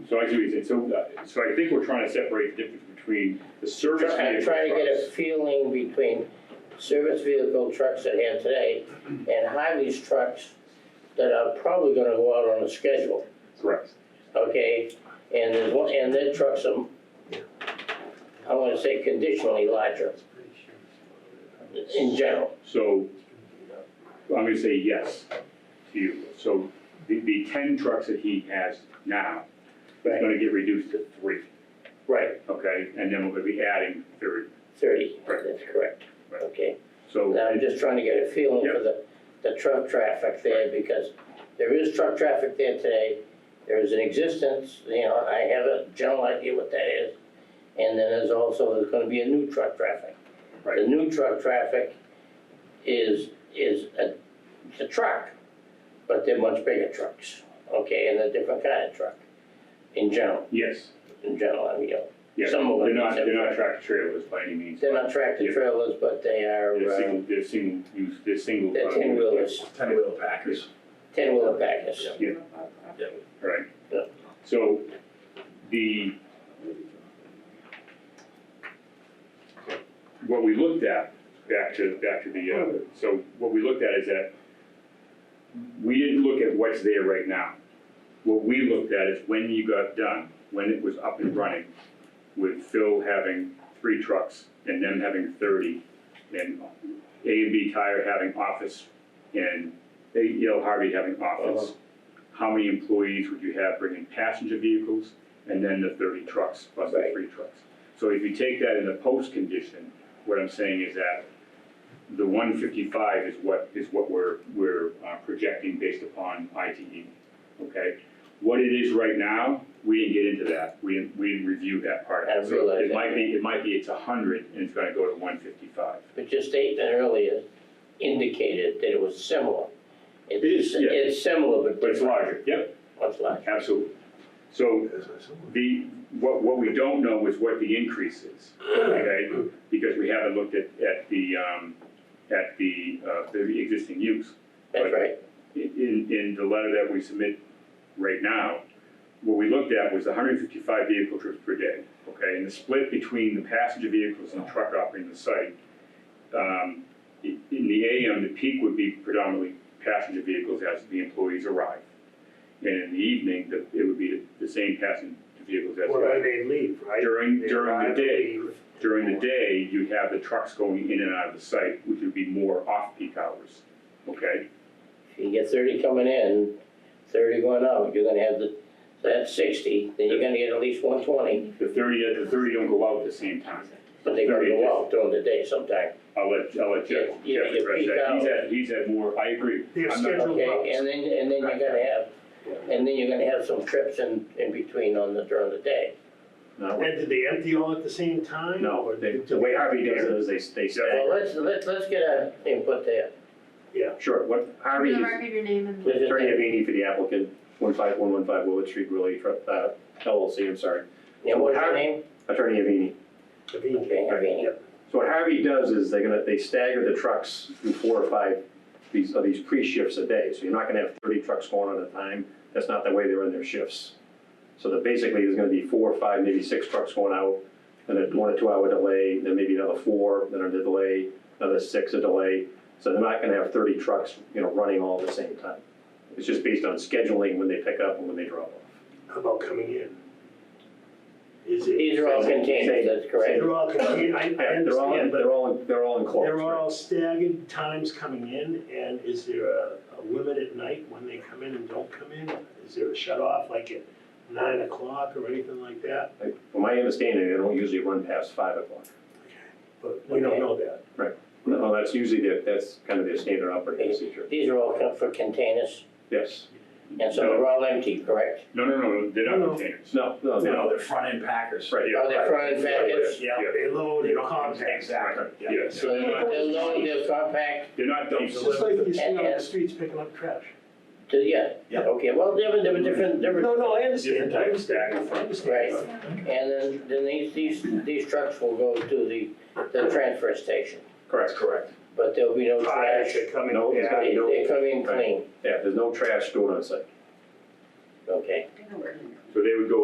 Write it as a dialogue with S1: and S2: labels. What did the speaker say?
S1: So I see what you're saying, so, uh, so I think we're trying to separate the difference between the service
S2: Try- I'm
S1: vehicle
S2: trying to get a
S1: trucks.
S2: feeling between service vehicle trucks that have today and highways trucks that are probably gonna go out on a schedule,
S1: Correct.
S2: okay? And there's one, and their trucks are, I wanna say conditionally larger in general.
S1: So I'm gonna say yes to you. So the, the ten trucks that he has now is
S2: Right.
S1: gonna get reduced to three,
S2: Right.
S1: okay? And then we're gonna be adding three.
S2: Thirty,
S1: Right.
S2: that's correct,
S1: Right.
S2: okay?
S1: So,
S2: Now, I'm just trying to get a feeling for the, the truck traffic there, because there is truck traffic there today. There is an existence, you know, I have a general idea what that is. And then there's also, there's gonna be a new truck traffic. The
S1: Right.
S2: new truck traffic is, is a, it's a truck, but they're much bigger trucks, okay, and a different kind of truck. In general,
S1: yes,
S2: in general, I mean, you know,
S1: yes.
S2: Some of them
S1: They're not,
S2: accept
S1: they're not
S2: that.
S1: tractor trailers by any means.
S2: they're not tractor trailers, but they are,
S1: They're
S2: uh,
S1: single, they're single use, they're single.
S2: they're ten wheelers,
S3: Ten-wheel packers.
S2: ten wheeler packers.
S1: Yeah. Right.
S2: Yeah.
S1: So the, what we looked at, back to, back to the, uh, so what we looked at is that we didn't look at what's there right now. What we looked at is when you got done, when it was up and running, with Phil having three trucks and them having thirty, and A and B Tire having office, and A.L. Harvey having office. How many employees would you have bringing passenger vehicles, and then the thirty trucks plus the
S2: Right.
S1: three trucks? So if you take that in the post condition, what I'm saying is that the one fifty-five is what, is what we're, we're uh, projecting based upon ITE, okay? What it is right now, we didn't get into that, we didn't, we didn't review that part.
S2: I
S1: So
S2: realize
S1: It
S2: that.
S1: might be, it might be it's hundred and it's gonna go to one fifty-five.
S2: But your statement earlier indicated that it was similar. It's-
S1: It is, yeah.
S2: It's similar, but.
S1: But it's larger, yep,
S2: Much larger.
S1: absolutely. So the, what, what we don't know is what the increase is, okay? Because we haven't looked at, at the, um, at the, uh, the existing use.
S2: That's right.
S1: in, in the letter that we submit right now, what we looked at was hundred and fifty-five vehicle trips per day, okay? And the split between the passenger vehicles and truck operating the site, um, i- in the AM, the peak would be predominantly passenger vehicles as the employees arrive. And in the evening, the, it would be the same passenger vehicles as.
S4: Well, then they leave, right?
S1: During,
S4: They
S1: during the
S4: arrive,
S1: day,
S4: leave.
S1: during the day, you'd have the trucks going in and out of the site, which would be more off-peak hours, okay?
S2: If you get thirty coming in, thirty going out, you're gonna have the, so that's sixty, then you're gonna get at least one twenty,
S1: The thirty, the thirty don't go out at the same time.
S2: but they're gonna
S1: 30
S2: go
S1: just-
S2: out during the day sometime.
S1: I'll let, I'll let Jeff,
S2: Yeah, yeah,
S1: Jeff address
S2: peak
S1: that. He's
S2: hours.
S1: had, he's had more, I agree.
S4: They have
S1: I'm not-
S4: scheduled
S2: Okay,
S4: routes.
S2: and then, and then you're gonna have, and then you're gonna have some trips in, in between on the, during the day.
S4: And did they empty all at the same time?
S3: No,
S4: or
S3: they,
S4: did-
S3: the way Harvey does it is they, they
S2: Well,
S3: stagger.
S2: let's, let's, let's get a input there.
S3: Sure, what
S5: For
S3: Harvey
S5: the
S3: is,
S5: record, your name and.
S2: Let's just-
S3: Attorney Avini for the applicant, one five one one five Willard Street Realty, Tr- uh, LLC, I'm sorry,
S2: Yeah, what's your name?
S3: Attorney Avini.
S4: I mean,
S2: Okay, Irving.
S3: So what Harvey does is they're gonna, they stagger the trucks through four or five these, of these pre-shifts a day. So you're not gonna have thirty trucks going at a time. That's not the way they run their shifts. So that basically there's gonna be four or five, maybe six trucks going out, then a one or two hour delay, then maybe another four, then another delay, another six a delay. So they're not gonna have thirty trucks, you know, running all at the same time. It's just based on scheduling when they pick up and when they drop off.
S4: How about coming in? Is it?
S2: These are all containers, that's correct.
S4: They're all contained, I, I
S3: They're all,
S4: understand, but
S3: they're all, they're all enclosed.
S4: they're
S3: right?
S4: all staggered times coming in, and is there a, a limit at night when they come in and don't come in? Is there a shut off like at nine o'clock or anything like that?
S3: Like, From my understanding, they don't usually run past five o'clock.
S4: But we don't know that.
S3: No, that's usually their, that's kind of their standard operating procedure,
S2: These are all con- for containers,
S3: yes.
S2: and so they're all empty, correct?
S1: No, no, no, they're
S4: No,
S1: not
S4: no.
S1: containers.
S3: No, no,
S6: No,
S3: no,
S6: they're front end packers.
S3: right,
S2: Are they front and back ends?
S6: Yeah.
S4: They load, they compact.
S6: Exactly, yeah.
S1: Yeah,
S2: So
S1: so
S2: they're
S1: they're not,
S2: they're low, they're compact,
S1: they're not
S4: It's
S1: dumpsters.
S4: just like you see on
S2: And-
S4: the streets picking up trash.
S2: to- yeah,
S6: Yeah.
S2: okay, well, they were, they were different, different,
S4: No, no, I understand,
S1: Different
S4: I understand,
S1: types.
S4: I understand.
S2: and then, then these, these, these trucks will go to the, the transfer station,
S6: Correct, correct.
S2: but there'll be no trash.
S4: Trash
S2: They,
S4: are coming
S3: No, it's
S4: back.
S3: gotta-
S2: they come in clean,
S3: yeah, there's no trash stored on site.
S2: okay?
S1: So they would go